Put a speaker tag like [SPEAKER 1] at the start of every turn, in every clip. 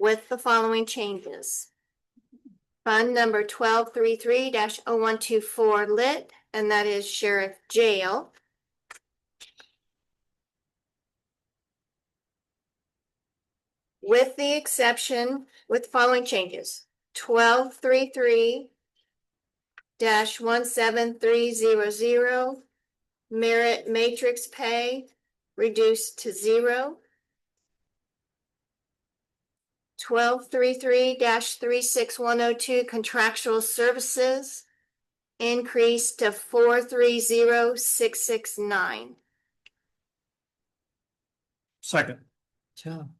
[SPEAKER 1] with the following changes. Fund number twelve three three oh 124 lit, and that is sheriff jail. With the exception, with the following changes, twelve three three dash one seven three zero zero merit matrix pay reduced to zero. Twelve three three three six one oh two contractual services increased to four three zero six six nine.
[SPEAKER 2] Second,
[SPEAKER 3] Joe.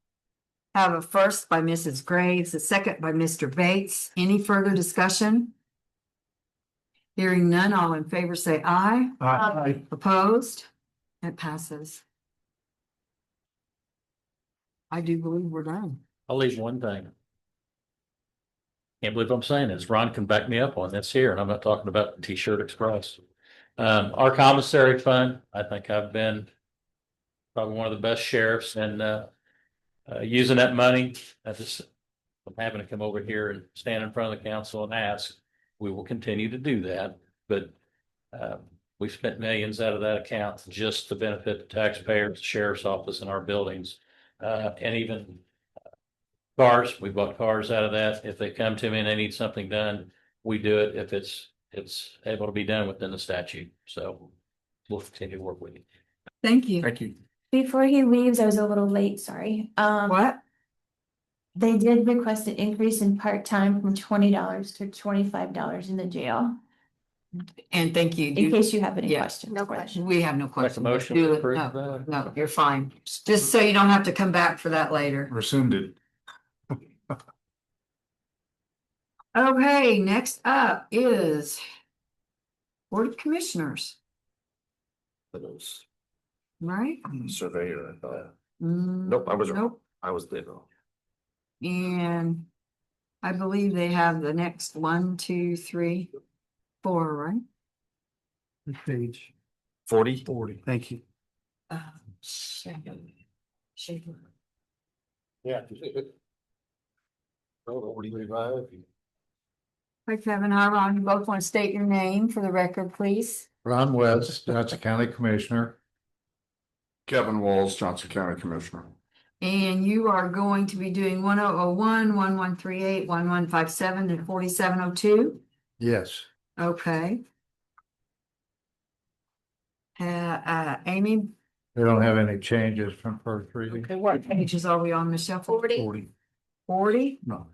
[SPEAKER 3] Have a first by Mrs. Graves, a second by Mr. Bates. Any further discussion? Hearing none, all in favor say aye.
[SPEAKER 2] aye,
[SPEAKER 3] Opposed? It passes. I do believe we're done.
[SPEAKER 4] I'll leave one thing. Can't believe I'm saying this. Ron can back me up on this here, and I'm not talking about T-shirt Express. Um, our commissary fund, I think I've been probably one of the best sheriffs and, uh, uh, using that money. I just, I'm having to come over here and stand in front of the council and ask. We will continue to do that, but, uh, we've spent millions out of that account just to benefit the taxpayers, the sheriff's office and our buildings. Uh, and even cars, we bought cars out of that. If they come to me and they need something done, we do it if it's, it's able to be done within the statute. So we'll continue to work with you.
[SPEAKER 3] Thank you.
[SPEAKER 2] thank you.
[SPEAKER 5] Before he leaves, I was a little late, sorry. Um,
[SPEAKER 3] What?
[SPEAKER 5] they did request an increase in part-time from twenty dollars to twenty-five dollars in the jail,
[SPEAKER 3] And thank you.
[SPEAKER 5] in case you have any
[SPEAKER 3] Yeah.
[SPEAKER 5] questions.
[SPEAKER 1] No
[SPEAKER 5] for them.
[SPEAKER 1] question.
[SPEAKER 3] You- We have no
[SPEAKER 4] Make a
[SPEAKER 3] question.
[SPEAKER 4] motion
[SPEAKER 3] Do
[SPEAKER 4] to
[SPEAKER 3] it.
[SPEAKER 4] approve
[SPEAKER 3] No,
[SPEAKER 4] that.
[SPEAKER 3] No, you're fine. Just so you don't have to come back for that later.
[SPEAKER 2] Rescinded.
[SPEAKER 3] Okay, next up is Board of Commissioners, right?
[SPEAKER 6] Surveyor, I thought.
[SPEAKER 3] Nope,
[SPEAKER 6] I wasn't.
[SPEAKER 3] Mm, Nope,
[SPEAKER 6] I was there.
[SPEAKER 3] and I believe they have the next one, two, three, four, right?
[SPEAKER 2] Page
[SPEAKER 6] Forty?
[SPEAKER 2] forty, thank you.
[SPEAKER 3] Uh, second. Shaker.
[SPEAKER 6] Yeah. Forty-five.
[SPEAKER 3] Hi Kevin, hi Ron, you both want to state your name for the record, please?
[SPEAKER 7] Ron West, Johnson County Commissioner.
[SPEAKER 6] Kevin Walls, Johnson County Commissioner.
[SPEAKER 3] And you are going to be doing 1001, 1138, 1157, and forty-seven oh two,
[SPEAKER 7] Yes,
[SPEAKER 3] okay? Uh, uh, Amy,
[SPEAKER 7] we don't have any changes from first reading.
[SPEAKER 3] what pages are we on, Michelle?
[SPEAKER 1] Forty,
[SPEAKER 2] Forty,
[SPEAKER 3] Forty?
[SPEAKER 2] no.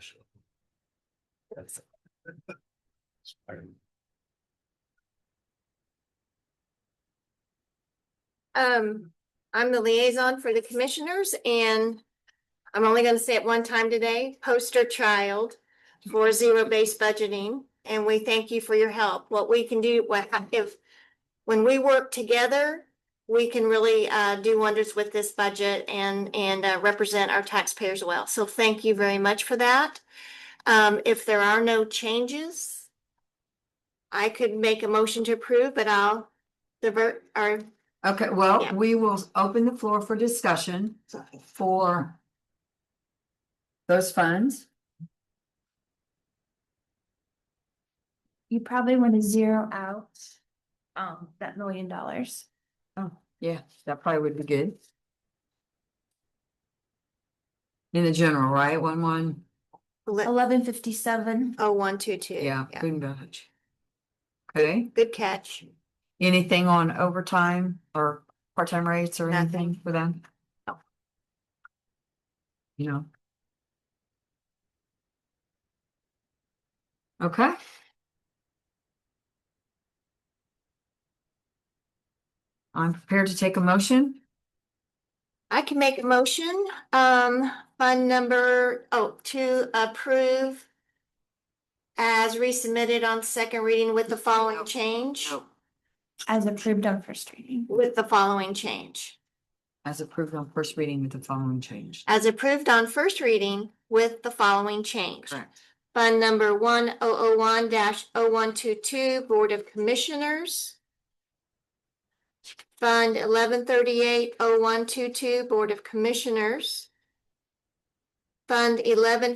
[SPEAKER 1] um, I'm the liaison for the commissioners and I'm only gonna say it one time today, poster child for zero-based budgeting. And we thank you for your help. What we can do, what if, when we work together, we can really uh do wonders with this budget and and uh, represent our taxpayers well. So thank you very much for that. Um, if there are no changes, I could make a motion to approve, but I'll divert our
[SPEAKER 3] Okay, well,
[SPEAKER 1] Yeah.
[SPEAKER 3] we will open the floor for discussion for those funds.
[SPEAKER 5] You probably want to zero out, um, that million dollars.
[SPEAKER 3] Oh, yeah, that probably would be good. In the general, right? One, one,
[SPEAKER 1] li-
[SPEAKER 5] Eleven fifty-seven,
[SPEAKER 1] oh one two two.
[SPEAKER 3] yeah, food and beverage. Okay,
[SPEAKER 1] Good catch.
[SPEAKER 3] anything on overtime or part-time rates or
[SPEAKER 1] Nothing.
[SPEAKER 3] anything for them?
[SPEAKER 1] No.
[SPEAKER 3] You know? Okay. I'm prepared to take a motion.
[SPEAKER 1] I can make a motion, um, fund number, oh, to approve as resubmitted on second reading with the following
[SPEAKER 3] Nope.
[SPEAKER 1] change,
[SPEAKER 5] as approved on first reading.
[SPEAKER 1] with the following change.
[SPEAKER 3] As approved on first reading with the following change.
[SPEAKER 1] As approved on first reading with the following change.
[SPEAKER 3] Correct.
[SPEAKER 1] Fund number one oh oh one dash oh one two two, Board of Commissioners. Fund eleven thirty-eight oh one two two, Board of Commissioners. Fund eleven